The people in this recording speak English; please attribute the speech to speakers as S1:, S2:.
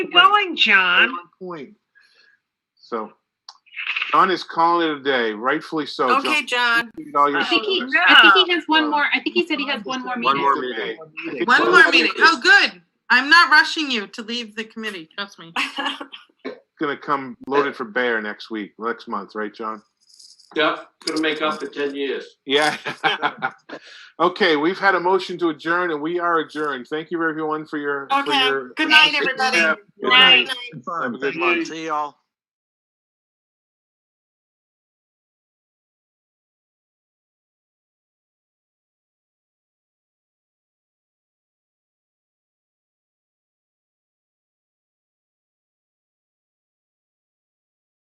S1: Keep going, John.
S2: One point. So, John is calling it a day, rightfully so. John.
S3: Okay, John,
S2: You did all your
S1: I
S4: I think he,
S2: service.
S4: I think he has one more, I think he said he has one more
S2: One
S4: meeting.
S2: more meeting. I think
S5: One
S2: so.
S5: more meeting. Oh, good. I'm not rushing you to leave the committee, trust me.
S2: Gonna come loaded for bear next week, next month, right, John?
S6: Yep, gonna make up for ten years.
S2: Yeah. Okay, we've had a motion to adjourn and we are adjourned. Thank you everyone for your. for
S3: okay.
S2: your-
S3: Good night, everybody.
S2: Good night.
S1: Night.
S2: Have a good
S6: Thank you.
S2: one.
S3: See y'all.